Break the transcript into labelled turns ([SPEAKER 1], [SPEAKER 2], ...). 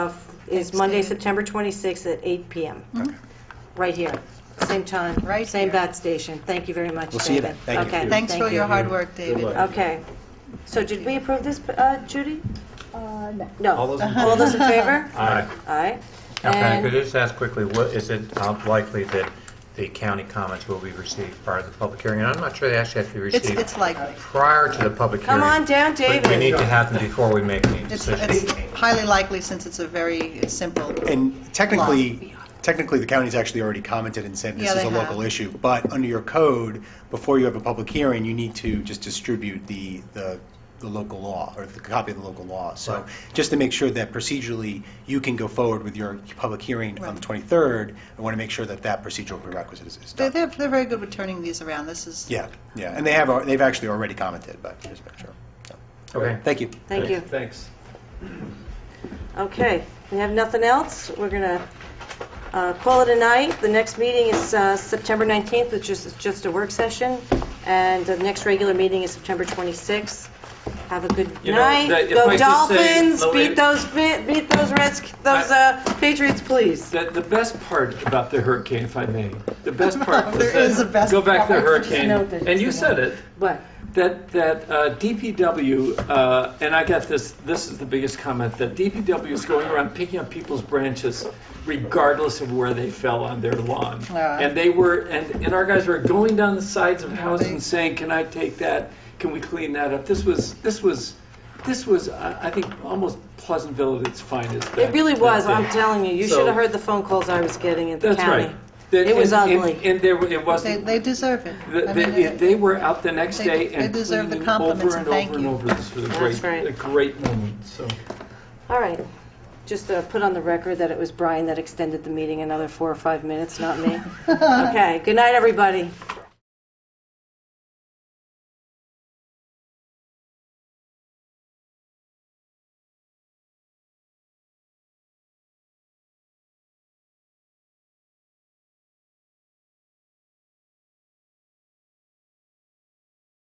[SPEAKER 1] is
[SPEAKER 2] Thanks,
[SPEAKER 1] Monday,
[SPEAKER 2] David.
[SPEAKER 1] September 26th at 8 PM,
[SPEAKER 2] Mhm.
[SPEAKER 1] right here, same time.
[SPEAKER 2] Right
[SPEAKER 1] Same
[SPEAKER 2] here.
[SPEAKER 1] bat station. Thank you very much, David.
[SPEAKER 3] We'll see you then. Thank you.
[SPEAKER 1] Okay,
[SPEAKER 2] Thanks
[SPEAKER 1] thank
[SPEAKER 2] for your
[SPEAKER 1] you.
[SPEAKER 2] hard work, David.
[SPEAKER 3] luck.
[SPEAKER 1] Okay. So did we approve this, uh, Judy?
[SPEAKER 4] Uh, no.
[SPEAKER 1] No.
[SPEAKER 3] All those in
[SPEAKER 1] All those in favor?
[SPEAKER 5] Aye.
[SPEAKER 1] Aye.
[SPEAKER 5] Now, can I
[SPEAKER 1] And-
[SPEAKER 5] could I just ask quickly, what, is it uh, likely that the county comments will be received prior to the public hearing? And I'm not sure they actually have to be
[SPEAKER 2] It's,
[SPEAKER 5] received
[SPEAKER 2] it's likely.
[SPEAKER 5] prior to the public hearing.
[SPEAKER 1] Come on down,
[SPEAKER 5] But we need
[SPEAKER 1] David.
[SPEAKER 5] to have them before we make any
[SPEAKER 2] It's,
[SPEAKER 5] decisions.
[SPEAKER 2] it's highly likely since it's a very simple.
[SPEAKER 3] And technically, technically, the county's actually already commented and said this
[SPEAKER 2] Yeah,
[SPEAKER 3] is
[SPEAKER 2] they
[SPEAKER 3] a local
[SPEAKER 2] have.
[SPEAKER 3] issue. But under your code, before you have a public hearing, you need to just distribute the, the the local law, or the copy of the local law.
[SPEAKER 5] Right.
[SPEAKER 3] So just to make sure that procedurally, you can go forward with your public hearing on the
[SPEAKER 2] Right.
[SPEAKER 3] 23rd, I want to make sure that that procedural prerequisite is is
[SPEAKER 2] They're,
[SPEAKER 3] done.
[SPEAKER 2] they're they're very good with turning these around. This is.
[SPEAKER 3] Yeah, yeah, and they have, al- they've actually already commented, but just make sure. So,
[SPEAKER 5] Okay.
[SPEAKER 3] Thank you.
[SPEAKER 1] Thank you.
[SPEAKER 6] Thanks.
[SPEAKER 1] Okay, we have nothing else. We're going to uh, call it a night. The next meeting is uh, September 19th, which is just a work session, and the next regular meeting is September 26th. Have a good
[SPEAKER 6] You know, that-
[SPEAKER 1] night.
[SPEAKER 6] if
[SPEAKER 1] Go
[SPEAKER 6] I could say-
[SPEAKER 1] Dolphins,
[SPEAKER 6] no,
[SPEAKER 1] beat
[SPEAKER 6] it-
[SPEAKER 1] those, Fi- beat those Reds, those uh, Patriots, please.
[SPEAKER 6] The, the best part about the hurricane, if I may, the best part.
[SPEAKER 2] There is a best
[SPEAKER 6] Go back to the
[SPEAKER 2] part.
[SPEAKER 6] hurricane,
[SPEAKER 1] Just noted,
[SPEAKER 6] and you
[SPEAKER 1] yeah.
[SPEAKER 6] said it,
[SPEAKER 1] What?
[SPEAKER 6] that, that uh, DPW, uh, and I got this, this is the biggest comment, that DPW is going around picking up people's branches regardless of where they fell on their lawn.
[SPEAKER 2] Yeah.
[SPEAKER 6] And they were, and, and our guys were going down the sides of houses
[SPEAKER 2] They-
[SPEAKER 6] and saying, can I take that? Can we clean that up? This was, this was, this was, I I think, almost Pleasantville at its finest.
[SPEAKER 1] It really was, I'm
[SPEAKER 6] telling.
[SPEAKER 1] telling you. You
[SPEAKER 6] So-
[SPEAKER 1] should have heard the phone calls I was getting at the
[SPEAKER 6] That's
[SPEAKER 1] county.
[SPEAKER 6] right. That-
[SPEAKER 1] It was
[SPEAKER 6] and- and-
[SPEAKER 1] ugly.
[SPEAKER 6] And there, were- it
[SPEAKER 2] They,
[SPEAKER 6] wasn't,
[SPEAKER 2] they deserve it.
[SPEAKER 6] th-
[SPEAKER 2] I mean,
[SPEAKER 6] they,
[SPEAKER 2] it-
[SPEAKER 6] they were out the next
[SPEAKER 2] they-
[SPEAKER 6] day
[SPEAKER 2] they
[SPEAKER 6] and
[SPEAKER 2] deserve the
[SPEAKER 6] cleaning
[SPEAKER 2] compliments
[SPEAKER 6] over
[SPEAKER 2] and
[SPEAKER 6] and
[SPEAKER 2] thank
[SPEAKER 6] over and
[SPEAKER 2] you.
[SPEAKER 6] over. This was a
[SPEAKER 1] That's right.
[SPEAKER 6] great, a great moment, so.
[SPEAKER 1] All right. Just uh, put on the record that it was Brian that extended the meeting another four or five minutes, not me. Okay, good night, everybody.